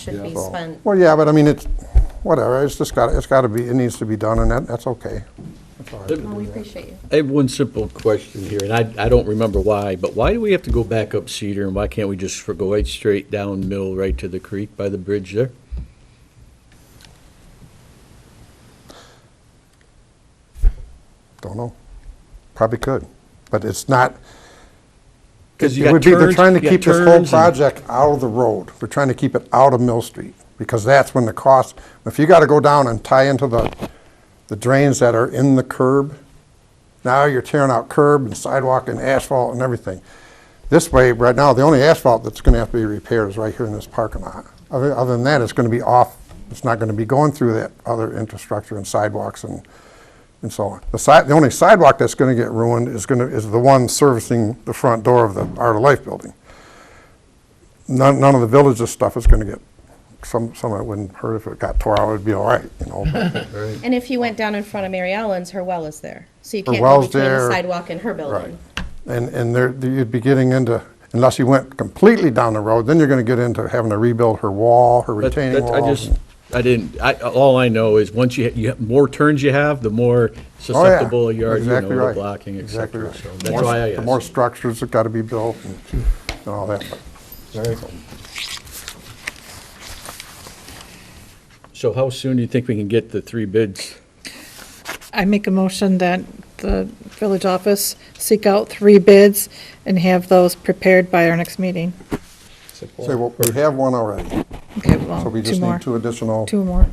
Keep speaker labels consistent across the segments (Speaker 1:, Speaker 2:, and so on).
Speaker 1: should be spent.
Speaker 2: Well, yeah, but I mean, it's, whatever, it's just got, it's got to be, it needs to be done, and that, that's okay. That's all right.
Speaker 1: Well, Oh, we appreciate you.
Speaker 3: I have one simple question here, and I, I don't remember why, but why do we have to go back up Cedar, and why can't we just go right straight down Mill, right to the creek by the bridge there?
Speaker 2: Don't know. Probably could, but it's not,
Speaker 3: Because you
Speaker 2: It
Speaker 3: got
Speaker 2: would be, they're
Speaker 3: turns-
Speaker 2: trying to
Speaker 3: you got
Speaker 2: keep this whole
Speaker 3: turns and-
Speaker 2: project out of the road. They're trying to keep it out of Mill Street, because that's when the cost, if you gotta go down and tie into the, the drains that are in the curb, now you're tearing out curb and sidewalk and asphalt and everything. This way, right now, the only asphalt that's gonna have to be repaired is right here in this parking lot. Other, other than that, it's gonna be off, it's not gonna be going through that other infrastructure and sidewalks and, and so on. The side, the only sidewalk that's gonna get ruined is gonna, is the one servicing the front door of the Art of Life building. None, none of the village's stuff is gonna get, some, some of it wouldn't hurt if it got tore out, it'd be all right, you know. but-
Speaker 1: And if you went down in front of Mary Ellen's, her well is there. So you
Speaker 2: Her
Speaker 1: can't go
Speaker 2: well's
Speaker 1: between the
Speaker 2: there.
Speaker 1: sidewalk and her building.
Speaker 2: And, and there, you'd be getting into, unless you went completely down the road, then you're gonna get into having to rebuild her wall, her
Speaker 3: That-
Speaker 2: retaining
Speaker 3: that- I
Speaker 2: wall.
Speaker 3: just, I didn't, I, all I know is once you, you, have- more turns you have, the more
Speaker 2: Oh, yeah,
Speaker 3: susceptible you are, you know,
Speaker 2: exactly
Speaker 3: to
Speaker 2: right,
Speaker 3: blocking, et
Speaker 2: exactly
Speaker 3: cetera.
Speaker 2: right.
Speaker 3: So
Speaker 2: The
Speaker 3: that's
Speaker 2: more-
Speaker 3: why I
Speaker 2: The more
Speaker 3: asked.
Speaker 2: structures that gotta be built and and all that. but-
Speaker 3: So how soon do you think we can get the three bids?
Speaker 4: I make a motion that the village office seek out three bids and have those prepared by our next meeting.
Speaker 2: Say, well, we have one already,
Speaker 4: Okay,
Speaker 2: so
Speaker 4: well,
Speaker 2: we
Speaker 4: two
Speaker 2: just
Speaker 4: more.
Speaker 2: need two additional.
Speaker 4: Two more.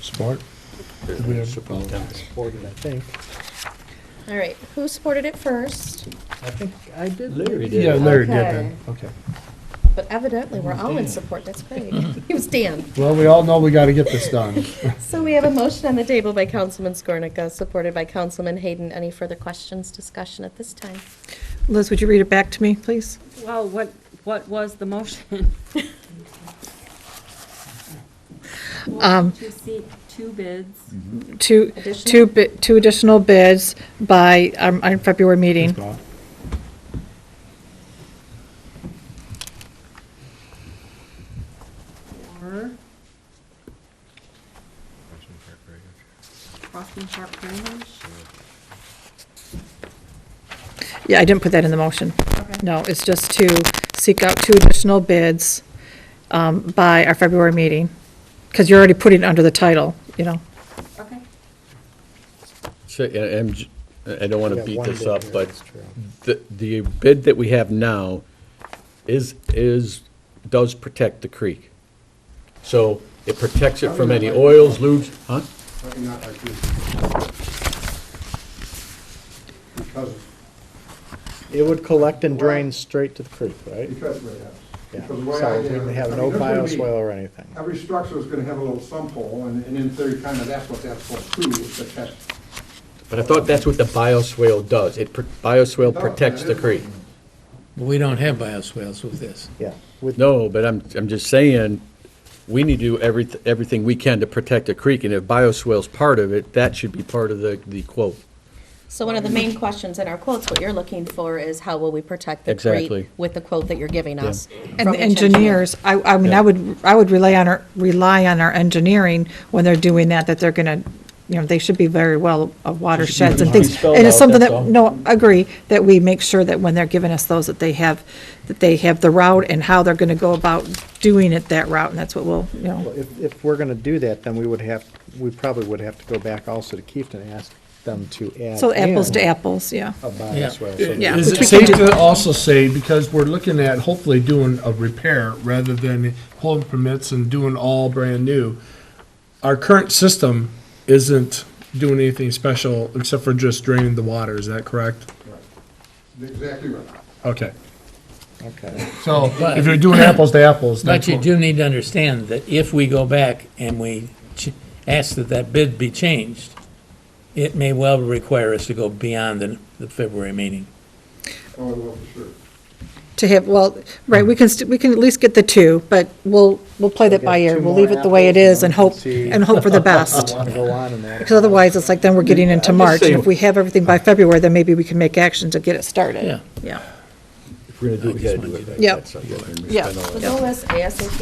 Speaker 5: Support?
Speaker 3: Supported, I think.
Speaker 1: All right, who supported it first?
Speaker 5: I think I did.
Speaker 3: Larry
Speaker 5: Yeah,
Speaker 3: did.
Speaker 5: Larry did
Speaker 1: Okay.
Speaker 5: then, okay.
Speaker 1: But evidently, we're all in support, that's great. It was Dan.
Speaker 5: Well, we all know we gotta get this done.
Speaker 1: So we have a motion on the table by Councilman Skornicka, supported by Councilman Hayden. Any further questions, discussion at this time?
Speaker 4: Liz, would you read it back to me, please?
Speaker 6: Well, what, what was the motion? Um. To seek two bids.
Speaker 4: Two, two, bi- two additional bids by um, our February meeting.
Speaker 6: for Crossing Park Drainage.
Speaker 4: Yeah, I didn't put that in the motion. No, it's just to seek out two additional bids um, by our February meeting, because you're already putting it under the title, you know.
Speaker 6: Okay.
Speaker 3: So, I- I'm j- I don't want to beat this up, but
Speaker 5: That's true.
Speaker 3: the, the bid that we have now is, is, does protect the creek. So it protects
Speaker 5: Oh,
Speaker 3: it from any oils, lubes, huh?
Speaker 2: Probably not like this. Because,
Speaker 7: It would collect and drain straight to the creek, right?
Speaker 2: because, we have-
Speaker 7: Yeah.
Speaker 2: because the way I
Speaker 7: So
Speaker 2: did
Speaker 7: we
Speaker 2: it,
Speaker 7: would
Speaker 2: I
Speaker 7: have
Speaker 2: mean,
Speaker 7: no
Speaker 2: this would be-
Speaker 7: bioswale or anything.
Speaker 2: Every structure is gonna have a little sump hole, and, and in theory, kind of that's what that's for too, is that that.
Speaker 3: But I thought that's what the bioswale does. It, pr-
Speaker 5: Oh,
Speaker 3: bioswale protects the creek.
Speaker 8: We don't have bioswales with this.
Speaker 7: Yeah. With,
Speaker 3: No, but I'm, I'm just saying, we need to do every, everything we can to protect the creek, and if bioswale's part of it, that should be part of the, the quote.
Speaker 1: So one of the main questions in our quotes, what you're looking for is how will we protect the creek
Speaker 3: Exactly.
Speaker 1: with the quote that you're giving us?
Speaker 4: And
Speaker 1: from
Speaker 4: the
Speaker 1: each engineer.
Speaker 4: engineers, I, I mean,
Speaker 3: Yeah.
Speaker 4: I would, I would rely on our, rely on our engineering when they're doing that, that they're gonna, you know, they should be very well of watersheds and things.
Speaker 3: spelled
Speaker 4: And it's
Speaker 3: out,
Speaker 4: something
Speaker 3: that's all.
Speaker 4: that, no, I agree, that we make sure that when they're giving us those, that they have, that they have the route and how they're gonna go about doing it that route, and that's what we'll, you know.
Speaker 7: if, if we're gonna do that, then we would have, we probably would have to go back also to Keefton and ask them to add.
Speaker 4: So apples to
Speaker 7: in
Speaker 4: apples, yeah.
Speaker 7: A
Speaker 8: Yeah.
Speaker 7: bioswale. So
Speaker 4: Yeah,
Speaker 8: Is
Speaker 4: which
Speaker 8: it
Speaker 4: we can do.
Speaker 8: safe to also say, because we're looking at hopefully doing a repair rather than pulling permits and doing all brand new, our current system isn't doing anything special except for just draining the water, is that correct?
Speaker 2: Exactly right.
Speaker 8: Okay,
Speaker 7: Okay.
Speaker 8: so if you're doing apples to apples,
Speaker 9: But
Speaker 8: that's
Speaker 9: you
Speaker 8: what.
Speaker 9: do need to understand that if we go back and we ch- ask that that bid be changed, it may well require us to go beyond the, the February meeting.
Speaker 2: Oh, well, for sure.
Speaker 4: To have, well, right, we can, st- we can at least get the two, but we'll, we'll play that by
Speaker 7: get
Speaker 4: ear.
Speaker 7: two
Speaker 4: We'll
Speaker 7: more
Speaker 4: leave it the way it
Speaker 7: apples
Speaker 4: is and
Speaker 7: and then we
Speaker 4: hope,
Speaker 7: can see.
Speaker 4: and hope for the best.
Speaker 7: Want to go on and that.
Speaker 4: Because otherwise, it's like then we're getting into
Speaker 3: I'm just
Speaker 4: March, and
Speaker 3: saying-
Speaker 4: if we have everything by February, then maybe we can make action to get it started.
Speaker 9: Yeah.
Speaker 4: Yeah. We're gonna do it, we gotta do it. right.
Speaker 8: Yep.
Speaker 4: That's not- we're gonna
Speaker 8: Yeah.
Speaker 4: spend all that
Speaker 1: But no less ASAP.